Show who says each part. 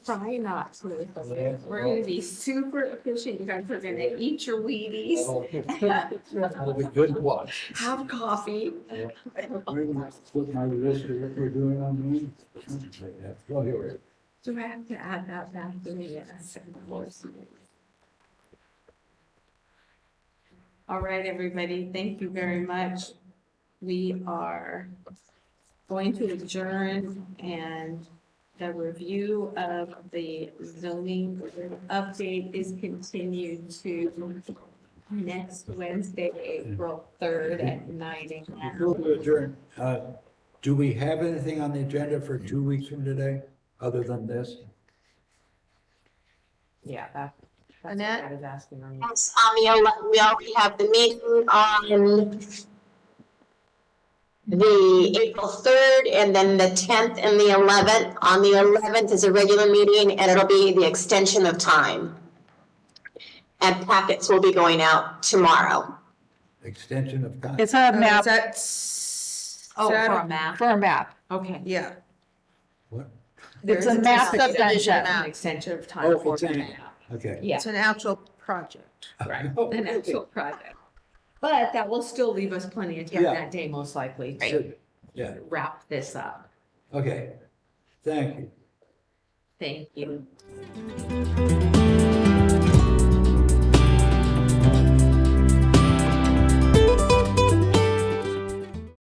Speaker 1: Try not to. We're gonna be super efficient. You guys are gonna eat your Wheaties,
Speaker 2: That'll be good to watch.
Speaker 1: have coffee.
Speaker 2: Uh, Put my list of what we're doing on me. Well, here we are.
Speaker 1: Do I have to add that back to the uh, second course? All right, everybody, thank you very much. We are going to adjourn and the review of the zoning update is continued to next Wednesday, April third at nine
Speaker 2: Before
Speaker 1: AM.
Speaker 2: we adjourn, uh, do we have anything on the agenda for two weeks from today, other than this?
Speaker 3: Yeah, that, that's what
Speaker 1: Annette?
Speaker 3: I was asking on.
Speaker 4: Yes, um, we al- we already have the meeting on the April third and then the tenth and the eleventh. On the eleventh is a regular meeting and it'll be the extension of time. And packets will be going out tomorrow.
Speaker 2: Extension of time?
Speaker 5: It's a map
Speaker 3: That's.
Speaker 1: Oh, for a map,
Speaker 5: for a map.
Speaker 1: okay.
Speaker 3: Yeah.
Speaker 2: What?
Speaker 5: It's
Speaker 1: There
Speaker 5: a
Speaker 1: is
Speaker 5: map
Speaker 1: extension.
Speaker 5: extension.
Speaker 1: An extension of time
Speaker 2: Oh,
Speaker 1: for the
Speaker 2: extension.
Speaker 1: map.
Speaker 2: Okay.
Speaker 1: Yeah.
Speaker 3: It's an actual project.
Speaker 1: Right, an actual project. But that will still leave us plenty of time
Speaker 2: Yeah.
Speaker 1: that day, most likely, to
Speaker 2: Should- Yeah,
Speaker 1: wrap this up.
Speaker 2: okay. Thank you.
Speaker 1: Thank you.